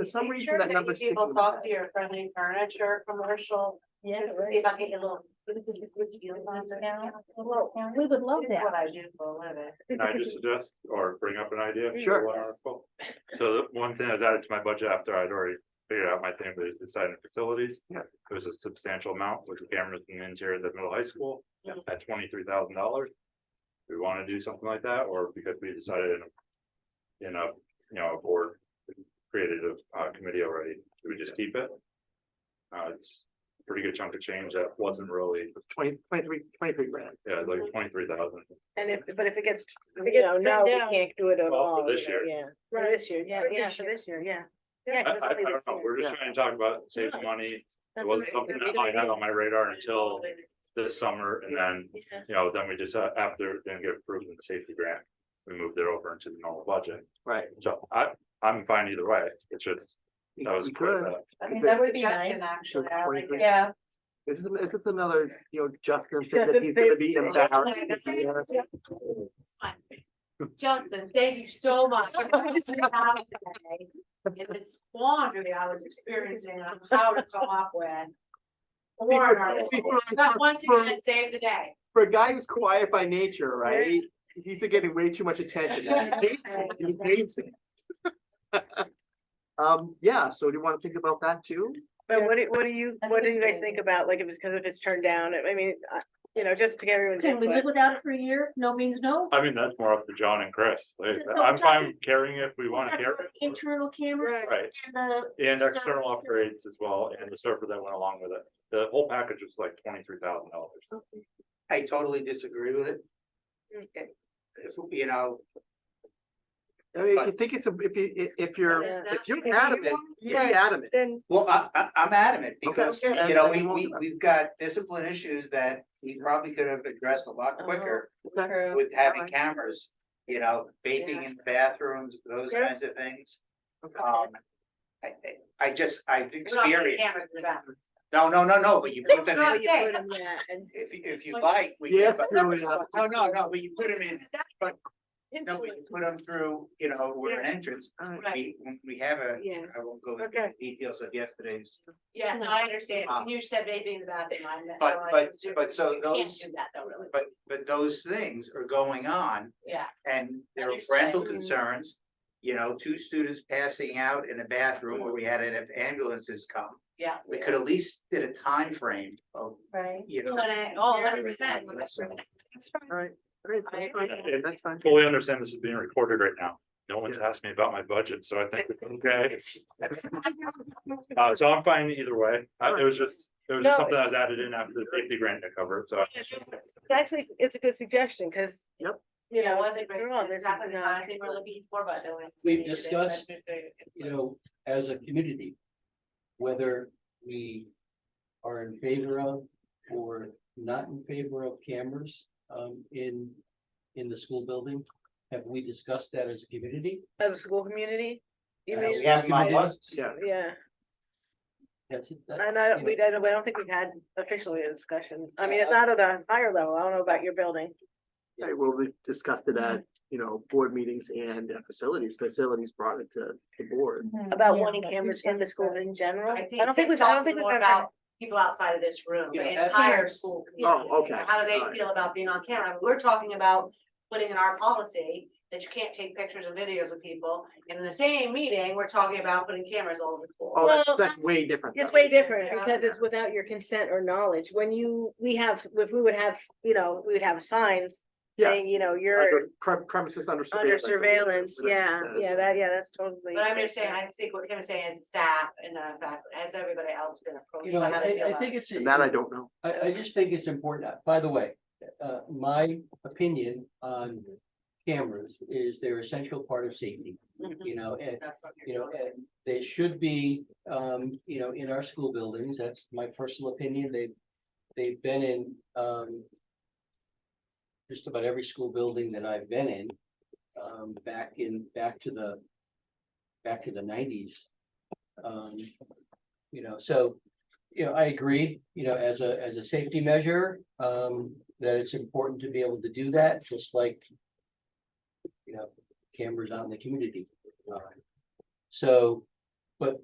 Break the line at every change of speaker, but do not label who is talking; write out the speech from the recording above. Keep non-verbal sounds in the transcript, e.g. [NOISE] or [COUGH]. For some
Make
reason,
sure
that number.
you People talk to your friendly furniture, commercial,
Yeah,
and see if I can get a little. deals on this. Well,
We would love
it's
that.
What I do for a living.
Can I just suggest or bring up an idea? for
Sure.
one article? So the one thing that was added to my budget after I'd already figured out my thing, but it's decided facilities.
Yeah.
It was a substantial amount with the cameras in the interior of the middle high school
Yeah.
at twenty-three thousand dollars. We want to do something like that, or because we decided in a, in a, you know, a board created a uh, committee already, do we just keep it? Uh, it's a pretty good chunk of change that wasn't really,
Twenty, twenty-three, twenty-three grand.
yeah, like twenty-three thousand.
And if, but if it gets. if it gets
No, no,
turned
we
down-
can't do it at
Well, for
all,
this
you know,
year.
yeah. For
Right.
this year, yeah,
For
yeah,
this
for
year.
this year, yeah.
Yeah,
I,
'cause it's
I, I
only
don't
this
know,
year.
we're
Yeah.
just trying to talk about saving money, it
That's what
wasn't
I
something
said, we
that I
don't
had
know.
on my radar until this summer, and then,
Yeah.
you know, then we just, uh, after, it didn't get approved in the safety grant. We moved it over into the normal budget,
Right.
so I, I'm fine either way, it's just, that was
We
quick.
could.
uh,
I
If
mean, that
it's
would be nice,
nice,
actually.
so
I like
23.
it. Yeah.
This is, this is another, you know, Justin said that
Justin
he's gonna
said-
be embarrassed. if he has-
Justin, thank you so [LAUGHS] much. In this quandary I was experiencing on how to come up with. a warrant article.
People- people are-
But once again, save the day.
For a guy who's quiet by nature, right, he- he's getting way too much attention. and
[LAUGHS]
He hates it, he hates it. [LAUGHS] Um, yeah, so do you wanna think about that too?
But what do, what do you,
I think
what do
it's
you guys
great.
think about, like, if it's, cause if it's turned down, I mean, I- you know, just to get everyone's
Can we
input.
live without it for a year? No means no.
I mean, that's more up to John and Chris, Like,
Just no,
I'm
John-
fine carrying it if we wanna carry it,
Internal cameras
right,
and the,
and external upgrades as well, and the server that went along with it. The whole package was like twenty-three thousand dollars.
I totally disagree with it. It- it's, You know,
I mean, if you
But-
think it's, a- if you, i- if
Well,
you're,
there's
if
that-
you're
if you
adamant,
want-
you be adamant.
Then,
well, I, I, I'm adamant because,
Okay, okay,
you know,
then
we,
we won't-
we, we've got discipline issues that we probably could have addressed a lot quicker
Okay.
with having
Alright.
cameras, you know, vaping in bathrooms, those
Yeah.
kinds of things.
Okay.
Um, I, I, I just, I've
We're not putting
experienced,
cameras in the bathroom.
no, no, no, no, but you put
[LAUGHS]
them
No,
in,
it's- Say.
if, you- if you like, we. can-
Yes,
but-
really,
No, no, no, but you put them in, no, but you put them through, you know, where an entrance,
Alright.
Right.
we, we have a,
Yeah,
I won't go into
okay.
details of yesterday's
Yes, and I understand.
Uh,
When You said vaping in the bathroom. I meant-
but-
I
but-
was doing-
but so
you can't
those-
Do that though, really.
But, but those things are going on
Yeah.
and there are
Understand.
rental
Mm.
concerns. You know, two students passing out in a bathroom where we had it if ambulances come.
Yeah.
We could at least did a time frame of,
right?
you know.
But, oh, hundred percent.
So,
Alright, great,
I
that's fine,
agree.
that's fine.
fully understand this is being recorded right now. No one's asked me about my budget, so I think
[LAUGHS]
it's okay. Uh, so I'm fine either way. I- It was just, it was
No.
just something that was added in after the safety grant to cover, it, so.
It's actually, it's a good suggestion, cause.
Yep.
You
Yeah, it
know,
wasn't
you're wrong,
great.
this is
Exactly the kind
not-
of thing we're looking for, but. no one's
We've
needed it,
discussed,
but-
you know, as a community, whether we are in favor of or not in favor of cameras um in in the school building. Have we discussed that as a community?
As a school community, you
As
mean,
We have them on buses.
Yeah,
yeah,
That's it, that-
and I, don't- we, I don't, I don't think we've had officially a discussion, I mean, it's not at a higher level, I don't know about your building.
Right, well, we discussed it at, you know, board meetings and uh, facilities, facilities brought it to the board.
About
Mm-hmm. Yeah,
wanting
but
cameras
who's
in the schools in general,
I
I
think
don't think
it's
we've, I don't
talking
think we've
more
ever.
about people outside of this room,
Yeah,
the
that's-
entire school. community.
Oh, okay,
How do they
alright.
feel about being on camera? We're talking about putting in our policy that you can't take pictures and videos of people. And in the same meeting, we're talking about putting cameras all over the
Oh,
floor.
that's,
Well,
that's way different.
It's
though.
way different
Yeah.
because it's without your consent or knowledge. When you, we have, if we would have, you know, we would have signs
Yeah.
saying, you know, you're
Under pre- Premises under.
under
surveillance.
surveillance. Yeah,
Whatever it
yeah,
says.
that, yeah, that's totally.
But I'm just saying, I think what Kim is saying is staff and uh, fact, has everybody else been
You
approached
know,
by
I
how they feel
I
about?
think
it?
it's.
And that I don't know.
I, I just think it's important, by the way, uh, my opinion on cameras is they're essential part of safety.
Mhm.
You know, and
That's what
you
you're
know,
doing.
and they should be, um, you know, in our school buildings, that's my personal opinion, they, they've been in, um. Just about every school building that I've been in, um, back in, back to the, back to the nineties. Um, you know, so, you know, I agree, you know, as a, as a safety measure, um, that it's important to be able to do that, just like. You know, cameras out in the community. Uh, so